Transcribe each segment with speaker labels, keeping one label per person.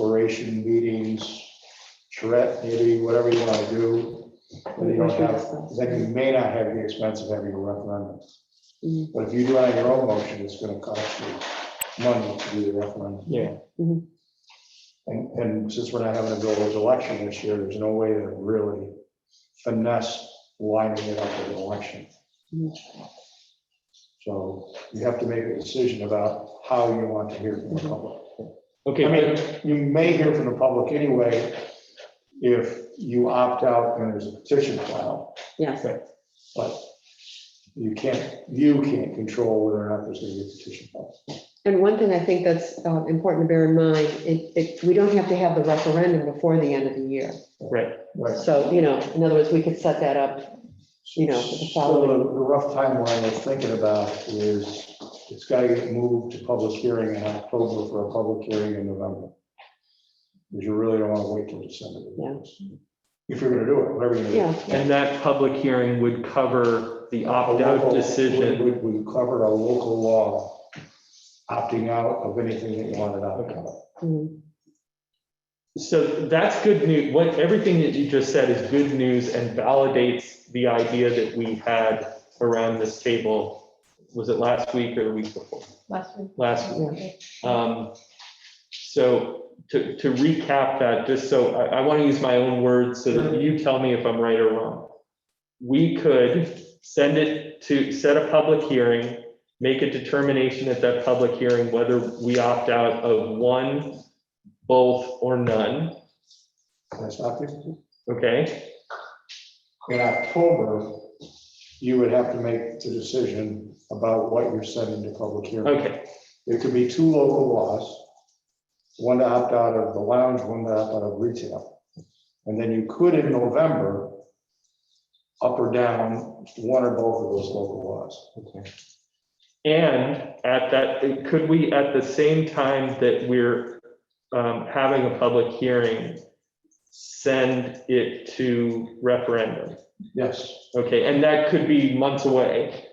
Speaker 1: exploration meetings, charrette maybe, whatever you want to do. But you don't have, then you may not have the expense of having a referendum.
Speaker 2: Mhm.
Speaker 1: But if you do it on your own motion, it's going to cost you money to do the referendum.
Speaker 3: Yeah.
Speaker 2: Mhm.
Speaker 1: And, and since we're not having a village election this year, there's no way to really finesse lining it up with an election.
Speaker 2: Mhm.
Speaker 1: So you have to make a decision about how you want to hear from the public.
Speaker 3: Okay,
Speaker 1: I mean, you may hear from the public anyway if you opt out and there's a petition filed,
Speaker 2: Yes,
Speaker 1: but you can't, you can't control whether or not there's going to be a petition filed.
Speaker 2: and one thing I think that's uh, important to bear in mind, it, it, we don't have to have the referendum before the end of the year.
Speaker 3: right,
Speaker 1: Right.
Speaker 2: So, you know, in other words, we could set that up. You know, the
Speaker 1: So the the rough timeline we're thinking about is it's got to get moved to public hearing in October for a public hearing in November. Because you really don't want to wait till December. to do this. If you're going to do it, whatever you're going
Speaker 2: Yeah,
Speaker 1: to do.
Speaker 3: and that public hearing would cover the opt-out
Speaker 1: Local-
Speaker 3: decision.
Speaker 1: We we covered a local law opting out of anything that you wanted out of.
Speaker 2: mhm,
Speaker 3: So that's good news. What, everything that you just said is good news and validates the idea that we had around this table. Was it last week or the week before?
Speaker 4: Last week.
Speaker 3: Last week.
Speaker 2: yeah.
Speaker 3: Um, So to, to recap that, just so, I, I want to use my own words so that you tell me if I'm right or wrong. We could send it to, set a public hearing, make a determination at that public hearing whether we opt out of one, both, or none,
Speaker 1: That's not the-
Speaker 3: okay?
Speaker 1: In October, you would have to make the decision about what you're sending to public hearing.
Speaker 3: Okay,
Speaker 1: It could be two local laws, one to opt out of the lounge, one to opt out of retail. And then you could in November, up or down, one or both of those local laws.
Speaker 3: and at that, could we, at the same time that we're um, having a public hearing, send it to referendum?
Speaker 1: Yes.
Speaker 3: Okay, and that could be months away.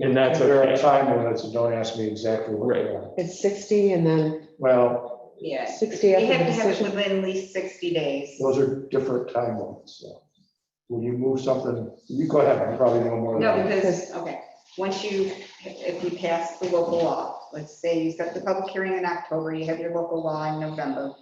Speaker 3: And that's
Speaker 1: There are
Speaker 3: okay.
Speaker 1: time limits, and don't ask me exactly what they are.
Speaker 2: It's 60 and then,
Speaker 1: Well,
Speaker 4: Yeah.
Speaker 2: 60
Speaker 4: We
Speaker 2: after
Speaker 4: have
Speaker 2: the
Speaker 4: to have it
Speaker 2: decision.
Speaker 4: within at least 60 days.
Speaker 1: those are different time limits. so. When you move something, you go ahead, I probably know more
Speaker 4: No,
Speaker 1: than you.
Speaker 4: because, okay, once you, if you pass the local law, let's say you set the public hearing in October, you have your local law in November.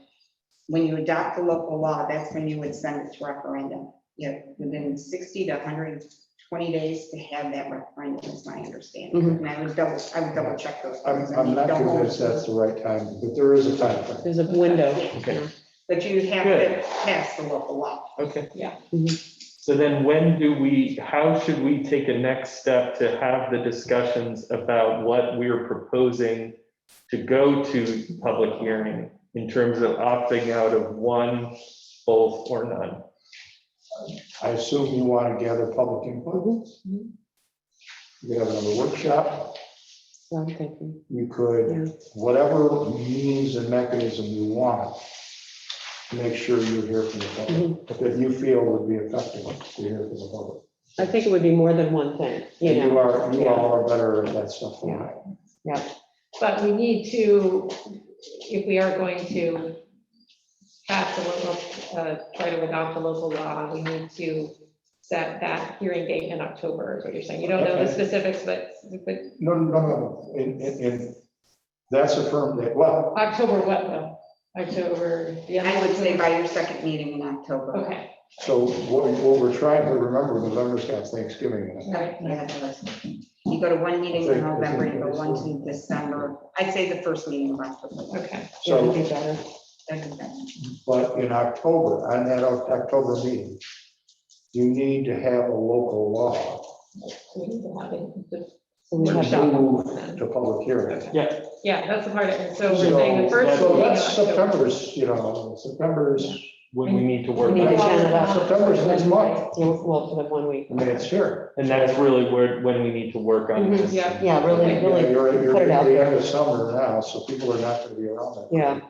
Speaker 4: When you adopt the local law, that's when you would send it to referendum. You have within 60 to 120 days to have that referendum, is my understanding.
Speaker 2: Mhm.
Speaker 4: And I would double, I would double check those.
Speaker 1: I'm,
Speaker 4: things. I
Speaker 1: I'm
Speaker 4: mean,
Speaker 1: not
Speaker 4: don't-
Speaker 1: convinced that's the right time, but there is a time frame.
Speaker 2: there's a window.
Speaker 3: Okay.
Speaker 4: But you have
Speaker 3: Good.
Speaker 4: to pass the local law.
Speaker 3: Okay.
Speaker 4: Yeah.
Speaker 1: Mm-hmm.
Speaker 3: So then when do we, how should we take a next step to have the discussions about what we're proposing to go to public hearing in terms of opting out of one, both, or none?
Speaker 1: I assume you want to gather public input.
Speaker 4: Mm-hmm.
Speaker 2: mhm.
Speaker 1: You could have another workshop,
Speaker 2: So I'm thinking,
Speaker 1: you
Speaker 2: Yeah.
Speaker 1: could, whatever means and mechanism you want, make sure you hear from the
Speaker 2: mhm.
Speaker 1: public, that you feel would be effective to hear from the public.
Speaker 2: I think it would be more than one thing, you
Speaker 1: And
Speaker 2: know.
Speaker 1: You are, you
Speaker 2: yeah.
Speaker 1: all are better at that stuff than I.
Speaker 5: But we need to, if we are going to pass the local, uh, try to adopt the local law, we need to set that hearing date in October, is what you're saying. You don't know the
Speaker 1: Okay.
Speaker 5: specifics, but, but
Speaker 1: No, no, no, no, and, and, and that's a firm date, well,
Speaker 5: October what, though? October, yeah.
Speaker 4: I would say by your second meeting in October.
Speaker 5: Okay,
Speaker 1: so what, what we're trying to remember, November's got Thanksgiving in it.
Speaker 5: right.
Speaker 4: Yeah, it was. You go to one meeting in November, you go one to December. I'd say the first meeting of October.
Speaker 5: okay,
Speaker 2: Yeah,
Speaker 1: So,
Speaker 2: it'd be better.
Speaker 1: but in October, on that October meeting, you need to have a local law
Speaker 5: we need to have it, the
Speaker 2: So we have
Speaker 5: workshop.
Speaker 1: to public hearing.
Speaker 3: Yeah,
Speaker 5: Yeah, that's the part, and so
Speaker 1: So
Speaker 5: we're saying the first.
Speaker 1: so
Speaker 5: meeting in
Speaker 1: that's
Speaker 5: October.
Speaker 1: September's, you know, September's,
Speaker 3: when we need to work.
Speaker 2: We need to
Speaker 3: on it.
Speaker 2: count it up.
Speaker 1: September's next month.
Speaker 2: So, Well, for the one week.
Speaker 1: I mean, it's here.
Speaker 3: And that's really where, when we need to work on this.
Speaker 5: Yeah.
Speaker 2: Mm-hmm, Yeah, really,
Speaker 1: You know,
Speaker 2: really
Speaker 1: You're, you're
Speaker 2: put it
Speaker 1: at
Speaker 2: out
Speaker 1: the
Speaker 2: there.
Speaker 1: end of summer now, so people are not gonna be around that.
Speaker 2: Yeah.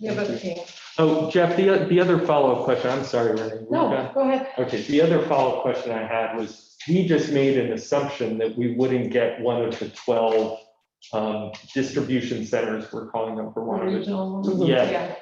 Speaker 5: Yeah, but, okay.
Speaker 3: Oh, Jeff, the, o- the other follow-up question, I'm sorry, Renee. we're done.
Speaker 5: No, go ahead.
Speaker 3: Okay, the other follow-up question I had was, we just made an assumption that we wouldn't get one of the 12 um, distribution centers, we're calling them for one of it.
Speaker 5: Regional,
Speaker 2: Mhm.
Speaker 3: Yeah.
Speaker 5: yeah.